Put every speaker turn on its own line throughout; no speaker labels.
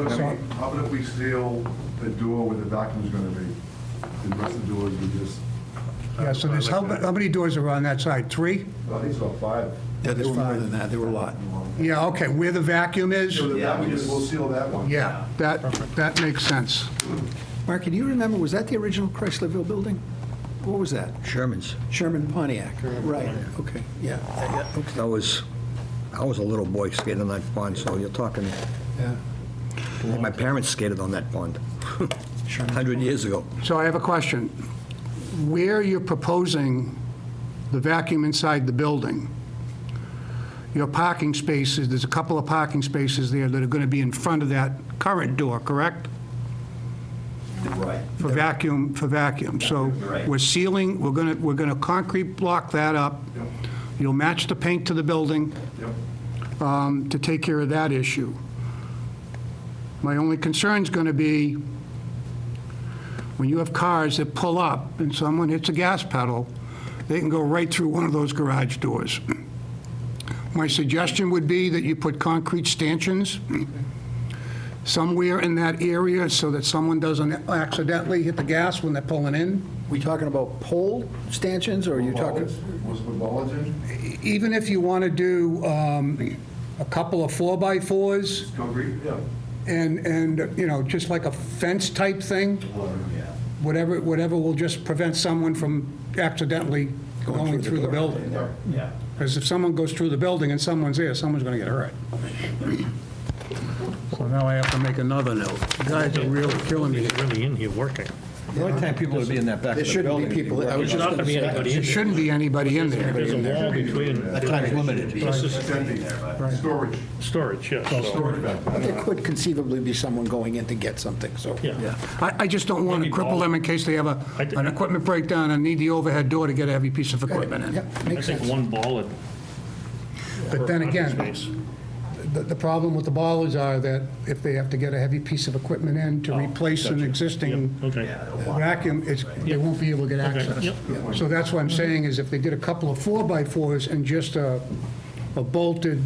about
this one?
if we- how about if we seal the door where the bathroom's gonna be? The rest of the doors, we just,
Yeah, so there's, how how many doors are on that side? Three?
I think it's about five.
Yeah, there were more than that, there were a lot.
Yeah, okay, where the vacuum is?
So the vacuum, we'll seal that one.
Yeah, that, that makes sense.
Mark, can you remember, was that the original Chryslerville building? What was that?
Sherman's.
Sherman Pontiac, right, okay, yeah, yeah, okay,
I was, I was a little boy skating on that pond, so you're talking,
yeah.
my parents skated on that pond, 100 years ago.
So I have a question. Where you're proposing the vacuum inside the building, your parking spaces, there's a couple of parking spaces there that are going to be in front of that current door, correct?
Right.
For vacuum, for vacuum. So
Right.
we're sealing, we're going to, we're going to concrete block that up.
Yep.
You'll match the paint to the building
Yep.
um, to take care of that issue. My only concern's going to be when you have cars that pull up and someone hits a gas pedal, they can go right through one of those garage doors. My suggestion would be that you put concrete stanchions somewhere in that area so that someone doesn't accidentally hit the gas when they're pulling in.
We talking about pole stanchions, or are you talking?
Bollards, Was the bollards in?
Even if you want to do um, a couple of four-by-fours,
It's concrete? Yeah.
and, and, you know, just like a fence-type thing, whatever, whatever will just prevent someone from accidentally going through the building.
Yeah.
Because if someone goes through the building and someone's there, someone's going to get hurt. So now I have to make another note. Guys are really killing me.
He's really in here working.
The only time people would be in that back
There shouldn't be people, I was
There's
just
not
gonna
gonna be
say.
anybody
There
in there.
shouldn't be anybody in there.
There's a wall between.
That time's limited.
This is
It's empty. Storage.
storage, yeah.
Oh,
so-
Storage back there.
There could conceivably be someone going in to get something, so.
Yeah.
I, I just don't want to
Maybe
cripple them in case they have a,
I d-
an equipment breakdown and need the overhead door to get a heavy piece of equipment in.
Yep,
I
makes
think
sense.
one ball at.
But then again, The, the problem with the bollards are that if they have to get a heavy piece of equipment in to replace an existing
Oh, Okay.
vacuum, it's, they won't be able to get access.
yep.
So that's what I'm saying, is if they did a couple of four-by-fours and just a a bolted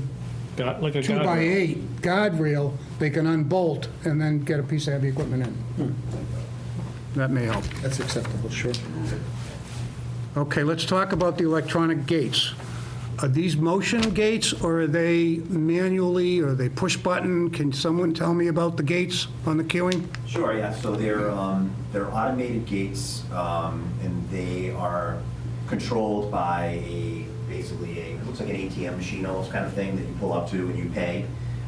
Got, like a guy.
two-by-eight guardrail, they can unbolt and then get a piece of heavy equipment in.
Hmm.
That may help.
That's acceptable, sure.
Okay, let's talk about the electronic gates. Are these motion gates, or are they manually, or are they push button? Can someone tell me about the gates on the queuing?
Sure, yeah, so they're, um, they're automated gates, um, and they are controlled by a, basically a, it looks like an ATM machine almost kind of thing that you pull up to and you pay.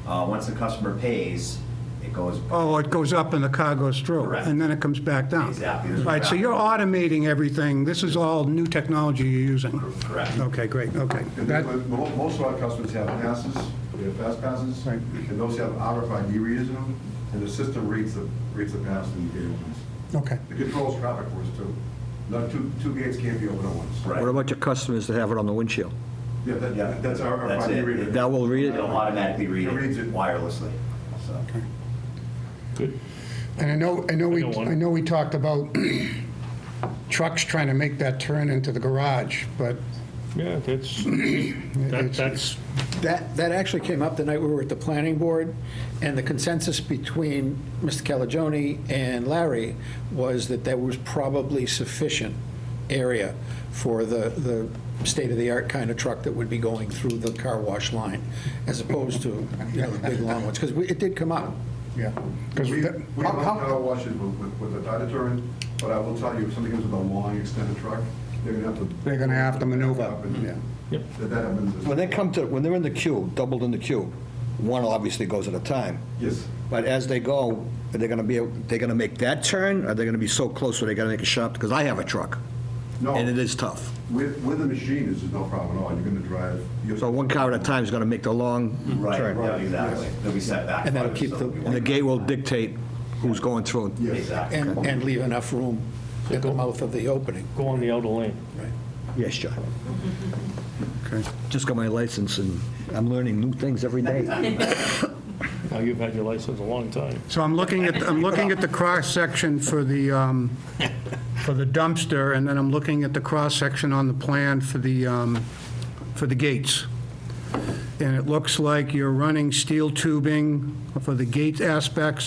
Uh, once the customer pays, it goes.
Oh, it goes up and the car goes through,
Correct.
and then it comes back down.
Exactly. There's a
Right, so
route.
you're automating everything. This is all new technology you're using.
Correct.
Okay, great, okay.
And
That-
then, mo- Most of our customers have passes, they have fast passes,
Right.
and those have RFID readers in them, and the system reads the, reads the pass and the gate opens.
Okay.
It controls traffic for us too. Not, two, two gates can't be open at once.
Right.
What about your customers that have it on the windshield?
Yeah, that, that's our
That's
RFID
it.
reader.
That will read
It'll
it?
automatically read
It reads
it
it.
wirelessly, so.
Good.
And I know, I know, we,
I got one.
I know we talked about trucks trying to make that turn into the garage, but
Yeah, that's, that- that's,
That, that actually came up the night we were at the planning board, and the consensus between Mr. Calagione and Larry was that there was probably sufficient area for the, the state-of-the-art kind of truck that would be going through the car wash line, as opposed to, you know, the big long ones, because it did come up.
Yeah, because
We, we have car washes with, with- with a data turn, but I will tell you, if somebody comes with a long extended truck, they're gonna have to.
They're gonna have to maneuver,
Up and-
yeah.
Yep.
That that happens.
When they come to, when they're in the queue, doubled in the queue, one obviously goes at a time.
Yes.
But as they go, are they going to be, able- they're going to make that turn? Are they going to be so close where they got to make a shot? Because I have a truck,
No,
and it is tough.
with, with the machine, is no problem at all. You're gonna drive. you're-
So one car at a time is going to make the long
Right,
turn.
yeah, exactly. They'll be set back.
And that'll
farther,
keep
so
the-
it'll be
And the
one-
gate will dictate who's going through.
Yes.
Exactly.
And, and leave enough room at the mouth of the opening.
go on the outer lane.
Yes, John.
Okay.
Just got my license, and I'm learning new things every day.
Now, you've had your license a long time.
So I'm looking at, I'm looking at the cross-section for the, um, for the dumpster, and then I'm looking at the cross-section on the plan for the, um, for the gates. and it looks like you're running steel tubing for the gate aspects